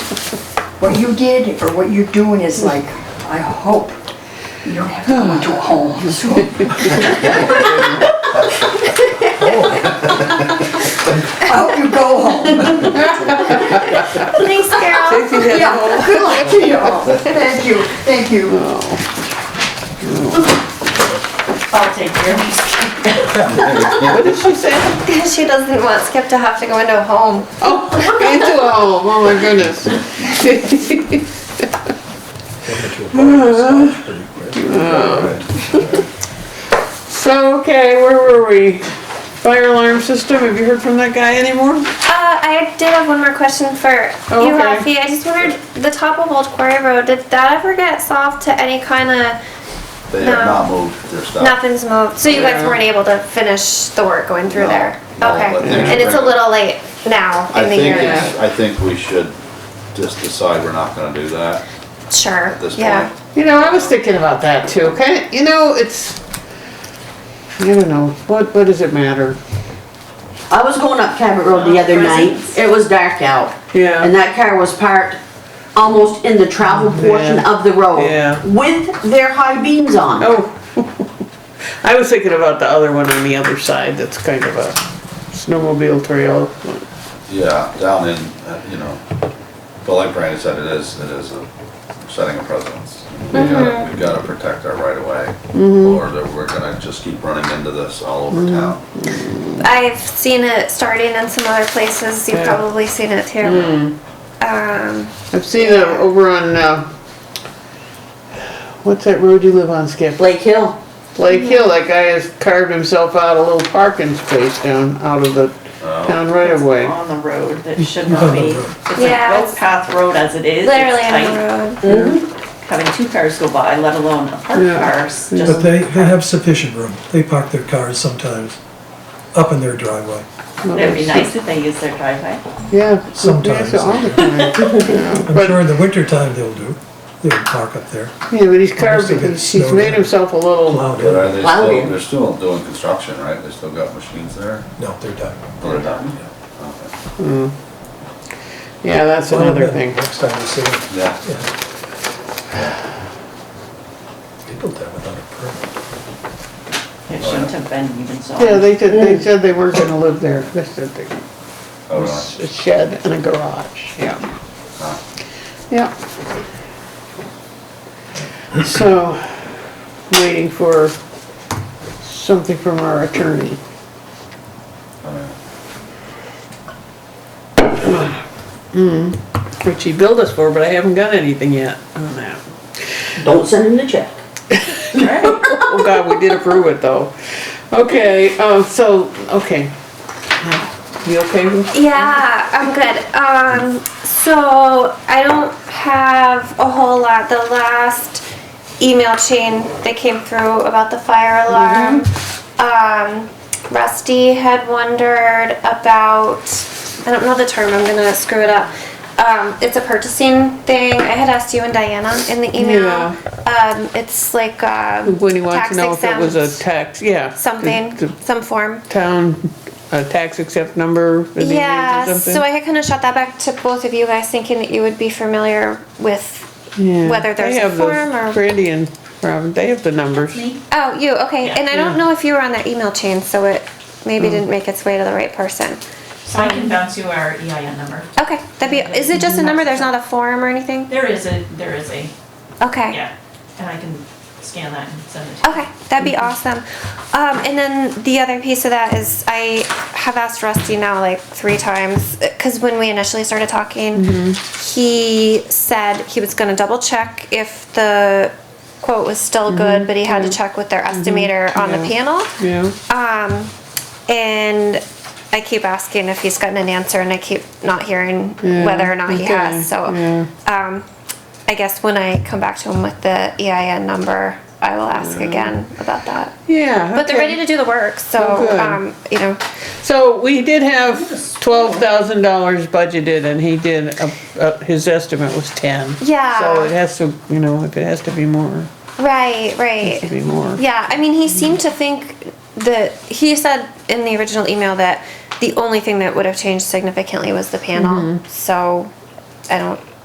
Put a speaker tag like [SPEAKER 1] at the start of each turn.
[SPEAKER 1] what you did or what you're doing is like, I hope you don't have to go into a home soon. I hope you go home.
[SPEAKER 2] Thanks, Carol.
[SPEAKER 3] If you had
[SPEAKER 1] Yeah,
[SPEAKER 3] all-
[SPEAKER 1] good luck to you all. Thank you, thank you. I'll take care of these.
[SPEAKER 3] What did she say?
[SPEAKER 2] She doesn't want Skip to have to go into a home.
[SPEAKER 3] Oh, into a home, oh my goodness. So, okay, where were we? Fire alarm system, have you heard from that guy anymore?
[SPEAKER 2] Uh, I did have one more question for
[SPEAKER 3] Oh,
[SPEAKER 2] you,
[SPEAKER 3] okay.
[SPEAKER 2] Rafi. I just wondered, the top of Old Quarry Road, did that ever get solved to any kind of,
[SPEAKER 4] They
[SPEAKER 2] No.
[SPEAKER 4] have not moved their stuff.
[SPEAKER 2] nothing's moved? So you guys
[SPEAKER 3] Yeah.
[SPEAKER 2] weren't able to finish the work going through
[SPEAKER 4] No,
[SPEAKER 2] there?
[SPEAKER 4] no,
[SPEAKER 2] Okay,
[SPEAKER 4] but things
[SPEAKER 2] and it's a
[SPEAKER 4] are-
[SPEAKER 2] little late now
[SPEAKER 4] I
[SPEAKER 2] in the
[SPEAKER 4] think,
[SPEAKER 2] year.
[SPEAKER 4] it's- I think we should just decide we're not gonna do that
[SPEAKER 2] Sure,
[SPEAKER 4] at this
[SPEAKER 2] yeah.
[SPEAKER 4] point.
[SPEAKER 3] You know, I was thinking about that too, kind of, you know, it's, I don't know, what, what does it matter?
[SPEAKER 5] I was going up Cabot Road the other night, it was dark out.
[SPEAKER 3] Oh, Yeah.
[SPEAKER 5] And that car was parked almost in the travel portion
[SPEAKER 3] Yeah.
[SPEAKER 5] of the road.
[SPEAKER 3] Yeah.
[SPEAKER 5] With their high beams on.
[SPEAKER 3] Oh. I was thinking about the other one on the other side, that's kind of a snowmobile trail.
[SPEAKER 4] Yeah, down in, uh, you know, but like Brandon said, it is, it is a setting a precedence. We
[SPEAKER 2] Mm-hmm.
[SPEAKER 4] gotta, we gotta protect our right of way, or that we're gonna just keep running into this all over
[SPEAKER 2] Mm-hmm.
[SPEAKER 4] town.
[SPEAKER 2] I've seen it starting in some other places. You've
[SPEAKER 3] Yeah. Hmm.
[SPEAKER 2] probably seen it too. Um,
[SPEAKER 3] I've seen it over on, uh, what's that road you live on, Skip?
[SPEAKER 5] Blake Hill,
[SPEAKER 3] Lake Hill, that guy has carved himself out a little parking space down out of the town right of way.
[SPEAKER 6] on the road that should not be. It's a
[SPEAKER 2] Yeah.
[SPEAKER 6] bike path road as it is. It's
[SPEAKER 2] literally on
[SPEAKER 6] tight.
[SPEAKER 2] the road.
[SPEAKER 6] Having two cars go by, let alone a parked
[SPEAKER 3] Yeah.
[SPEAKER 6] car, is
[SPEAKER 7] But
[SPEAKER 6] just,
[SPEAKER 7] they, they have sufficient room. They park their cars sometimes up in their driveway.
[SPEAKER 6] it'd be nice if they used their driveway.
[SPEAKER 3] Yeah.
[SPEAKER 7] Sometimes.
[SPEAKER 3] Yeah, all the time.
[SPEAKER 7] I'm sure in the wintertime they'll do. They'll park up there.
[SPEAKER 3] Yeah, but he's carved, he's he's made himself a little,
[SPEAKER 7] Allowed
[SPEAKER 4] But
[SPEAKER 7] in.
[SPEAKER 4] are they
[SPEAKER 5] Wow.
[SPEAKER 4] still, they're still doing construction, right? They still got machines there?
[SPEAKER 7] No, they're done.
[SPEAKER 4] Or they're not? Yeah.
[SPEAKER 3] yeah, that's another thing.
[SPEAKER 7] Next time you see them.
[SPEAKER 4] Yeah.
[SPEAKER 7] yeah. They built that without a permit.
[SPEAKER 6] It shouldn't have been even so.
[SPEAKER 3] Yeah, they said, they said they weren't gonna live there, they said they,
[SPEAKER 4] Oh,
[SPEAKER 3] it
[SPEAKER 4] really? Ah,
[SPEAKER 3] was a shed and a garage, yeah.
[SPEAKER 4] Huh.
[SPEAKER 3] Yeah. So, waiting for something from our attorney.
[SPEAKER 4] Oh, yeah.
[SPEAKER 3] Which he billed us for, but I haven't got anything yet on that.
[SPEAKER 5] don't send him the check.
[SPEAKER 6] Right.
[SPEAKER 3] Oh god, we did approve it though. Okay, um, so, okay. You okay with?
[SPEAKER 2] Yeah, I'm good. Um, so I don't have a whole lot. The last email chain that came through about the fire alarm.
[SPEAKER 3] Mm-hmm.
[SPEAKER 2] Um, Rusty had wondered about. I don't know the term. I'm gonna screw it up. Um, it's a purchasing thing. I had asked you and Diana in the email.
[SPEAKER 3] Yeah.
[SPEAKER 2] Um, it's like um,
[SPEAKER 3] When he wants to
[SPEAKER 2] tax
[SPEAKER 3] know if it was a
[SPEAKER 2] exempt
[SPEAKER 3] tax, yeah.
[SPEAKER 2] something,
[SPEAKER 3] The- the
[SPEAKER 2] some form.
[SPEAKER 3] Town, a tax accept number? that he needs or
[SPEAKER 2] Yeah, so
[SPEAKER 3] something?
[SPEAKER 2] I had kind of shot that back to both of you guys, thinking that you would be familiar with
[SPEAKER 3] Yeah.
[SPEAKER 2] whether
[SPEAKER 3] They
[SPEAKER 2] there's a
[SPEAKER 3] have those-
[SPEAKER 2] form or-
[SPEAKER 3] Brandy and Robin, they have the numbers.
[SPEAKER 2] Oh, you, okay, and I don't know if you were on that email chain, so it maybe
[SPEAKER 3] Mm.
[SPEAKER 2] didn't make its way to the right person.
[SPEAKER 8] So I can bounce you our EIN number.
[SPEAKER 2] Okay, that'd be, is it
[SPEAKER 3] Mm-hmm.
[SPEAKER 2] just a number, there's not a form or anything?
[SPEAKER 8] There is a, there is a,
[SPEAKER 2] Okay.
[SPEAKER 8] yeah, and I can scan that and send it to you.
[SPEAKER 2] Okay, that'd be awesome. Um, and then the other piece of that is I have asked Rusty now like three times because when we initially started talking,
[SPEAKER 3] Mm-hmm.
[SPEAKER 2] he said he was going to double check if the quote was still good, but he had to check with their estimator on the
[SPEAKER 3] Mm-hmm. Yeah.
[SPEAKER 2] panel.
[SPEAKER 3] Yeah.
[SPEAKER 2] Um, and I keep asking if he's gotten an answer, and I keep not hearing
[SPEAKER 3] Yeah,
[SPEAKER 2] whether or not he has. So,
[SPEAKER 3] okay, yeah.
[SPEAKER 2] um, I guess when I come back to him with the EIN number, I will ask again about that.
[SPEAKER 3] Yeah.
[SPEAKER 2] But they're
[SPEAKER 3] okay.
[SPEAKER 2] ready to do the work,
[SPEAKER 3] Oh,
[SPEAKER 2] so
[SPEAKER 3] good.
[SPEAKER 2] um, you know,
[SPEAKER 3] So we did have twelve thousand dollars budgeted and he did, uh, uh, his estimate was ten.
[SPEAKER 2] Yeah.
[SPEAKER 3] So it has to, you know, if it has to be more,
[SPEAKER 2] right, right.
[SPEAKER 3] it has to be more.
[SPEAKER 2] Yeah, I mean, he seemed to think that he said in the original email
[SPEAKER 3] Mm-hmm.
[SPEAKER 2] that the only thing that would have changed significantly was the panel. So I don't